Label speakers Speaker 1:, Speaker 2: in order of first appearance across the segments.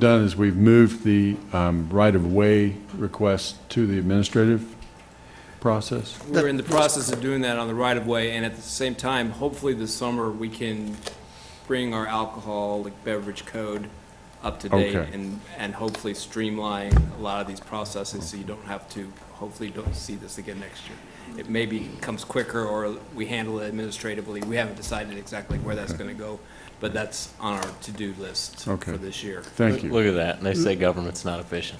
Speaker 1: done is we've moved the um, right-of-way request to the administrative process.
Speaker 2: We're in the process of doing that on the right-of-way, and at the same time, hopefully this summer, we can bring our alcoholic beverage code up to date
Speaker 1: Okay.
Speaker 2: and, and hopefully streamline a lot of these processes, so you don't have to, hopefully you don't see this again next year. It maybe comes quicker, or we handle it administratively. We haven't decided exactly where that's gonna go, but that's on our to-do list for
Speaker 1: Okay.
Speaker 2: this year.
Speaker 1: Thank you.
Speaker 3: Look at that. They say government's not efficient.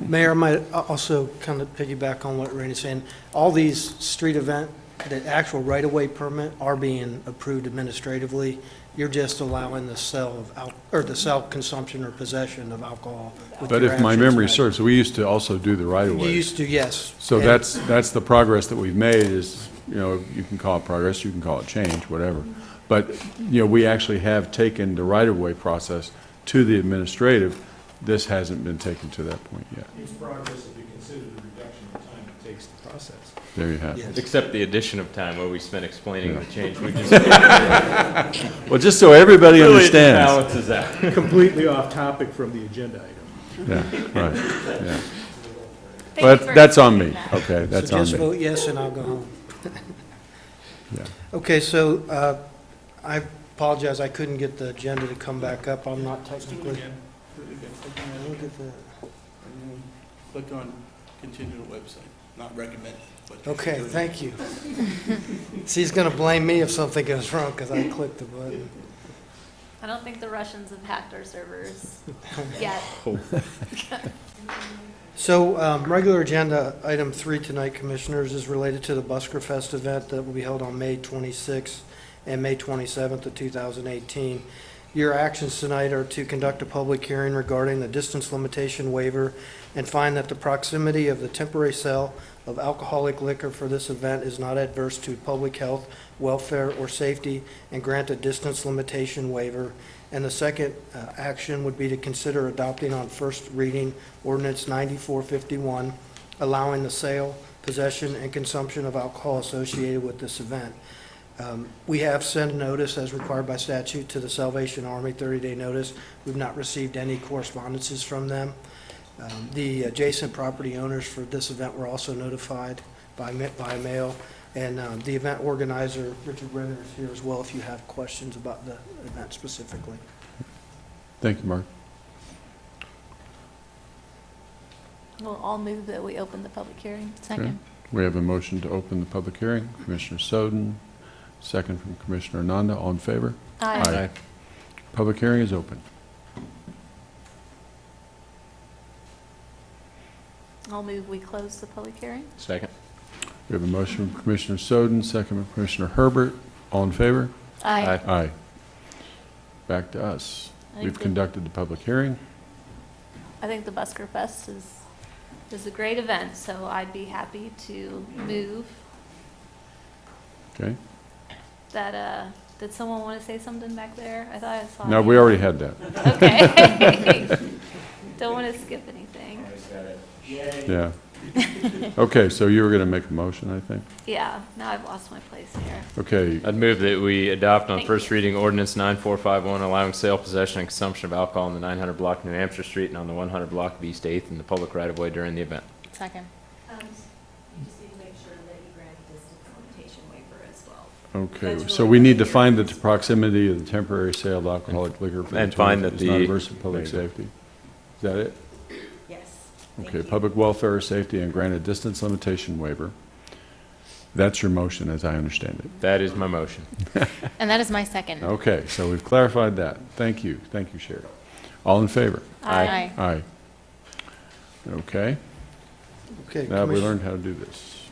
Speaker 4: Mayor, I might a- also kind of piggyback on what Randy's saying. All these street event, the actual right-of-way permit are being approved administratively. You're just allowing the sale of, al- or the sell consumption or possession of alcohol. with
Speaker 1: But
Speaker 4: your
Speaker 1: if my
Speaker 4: actions,
Speaker 1: memory
Speaker 4: right?
Speaker 1: serves, we used to also do the
Speaker 4: You
Speaker 1: right-of-way.
Speaker 4: used to, yes.
Speaker 1: So
Speaker 4: And-
Speaker 1: that's, that's the progress that we've made is, you know, you can call it progress, you can call it change, whatever. But, you know, we actually have taken the right-of-way process to the administrative. This hasn't been taken to that point yet.
Speaker 5: It's progress if you consider the reduction in time it takes to process.
Speaker 1: There you have it.
Speaker 4: Yes.
Speaker 3: Except the addition of time where we spent explaining the change. We just
Speaker 1: Well, just so everybody
Speaker 3: really
Speaker 1: understands.
Speaker 3: balances out.
Speaker 5: Completely off topic from the agenda item.
Speaker 1: Yeah, right, yeah.
Speaker 6: Thank you
Speaker 1: But
Speaker 6: for
Speaker 1: that's on me,
Speaker 6: explaining that.
Speaker 1: okay, that's
Speaker 4: So
Speaker 1: on
Speaker 4: just
Speaker 1: me.
Speaker 4: vote yes and I'll go home.
Speaker 1: Yeah.
Speaker 4: Okay, so uh, I apologize, I couldn't get the agenda to come back up. I'm not technically. Look at that.
Speaker 7: Click on continue to website, not recommend. but you should
Speaker 4: Okay,
Speaker 7: do it.
Speaker 4: thank you. She's going to blame me if something goes wrong because I clicked the button.
Speaker 6: I don't think the Russians have hacked our servers yet.
Speaker 4: So, um, regular agenda, item three tonight, Commissioners, is related to the Busker Fest event that will be held on May 26th and May 27th of 2018. Your actions tonight are to conduct a public hearing regarding the distance limitation waiver and find that the proximity of the temporary sale of alcoholic liquor for this event is not adverse to public health, welfare, or safety, and grant a distance limitation waiver. And the second uh, action would be to consider adopting on first reading ordinance 9451, allowing the sale, possession, and consumption of alcohol associated with this event. Um, We have sent a notice as required by statute to the Salvation Army, 30-day notice. We've not received any correspondences from them. Um, The adjacent property owners for this event were also notified by ma- by mail. And um, the event organizer, Richard Renner, is here as well if you have questions about the event specifically.
Speaker 1: Thank you, Mark.
Speaker 6: We'll all move that we open the public hearing.
Speaker 1: Hmm?
Speaker 6: Second.
Speaker 1: We have a motion to open the public hearing. Commissioner Soden, second from Commissioner Nanda, all in favor?
Speaker 6: Aye.
Speaker 1: Public hearing is open.
Speaker 6: I'll move we close the public hearing.
Speaker 3: Second.
Speaker 1: We have a motion from Commissioner Soden, second from Commissioner Herbert, all in favor?
Speaker 3: Aye.
Speaker 1: Aye. Back to us.
Speaker 6: I think
Speaker 1: We've
Speaker 6: the-
Speaker 1: conducted the public hearing.
Speaker 6: I think the Busker Fest is, is a great event, so I'd be happy to move
Speaker 1: Okay?
Speaker 6: that, uh, did someone want to say something back there? I thought I saw.
Speaker 1: No, we already had that.
Speaker 6: Okay. Don't want to skip anything.
Speaker 1: Yeah. Okay, so you were going to make a motion, I think?
Speaker 6: Yeah, now I've lost my place here.
Speaker 1: Okay,
Speaker 3: I'd move that we adopt on
Speaker 6: Thank
Speaker 3: first reading ordinance 9451 allowing sale, possession, and consumption of alcohol on the 900 block of New Hampshire Street and on the 100 block of East 8th in the public right-of-way during the event.
Speaker 6: Second.
Speaker 8: Um, You just need to make sure that you grant distance limitation waiver as well.
Speaker 1: okay.
Speaker 8: That's
Speaker 1: So
Speaker 8: really
Speaker 1: we
Speaker 8: what
Speaker 1: need to
Speaker 8: the
Speaker 1: find
Speaker 8: hearing
Speaker 1: that the proximity of the temporary sale of alcoholic liquor for the
Speaker 3: And find
Speaker 1: tourist
Speaker 3: that
Speaker 1: is not
Speaker 3: the-
Speaker 1: adverse to public
Speaker 3: there you
Speaker 1: safety. Is that it?
Speaker 8: Yes.
Speaker 1: Okay, public welfare or safety and grant a distance limitation waiver. That's your motion, as I understand it.
Speaker 3: That is my motion.
Speaker 9: And that is my second.
Speaker 1: Okay, so we've clarified that. Thank you, thank you, Sherry. All in favor?
Speaker 9: Aye.
Speaker 1: Aye. Okay,
Speaker 4: Okay.
Speaker 1: now we
Speaker 4: Commissioner-
Speaker 1: learned how to do this.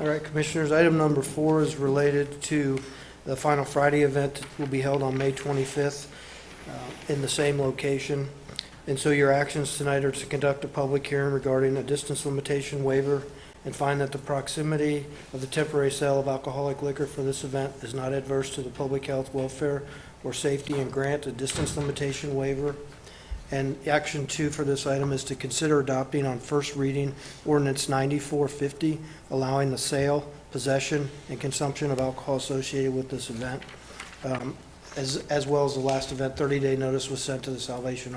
Speaker 4: All right, Commissioners, item number four is related to the Final Friday event that will be held on May 25th uh, in the same location. And so your actions tonight are to conduct a public hearing regarding a distance limitation waiver and find that the proximity of the temporary sale of alcoholic liquor for this event is not adverse to the public health, welfare, or safety, and grant a distance limitation waiver. And action two for this item is to consider adopting on first reading ordinance 9450, allowing the sale, possession, and consumption of alcohol associated with this event. Um, as, as well as the last event, 30-day notice was sent to the Salvation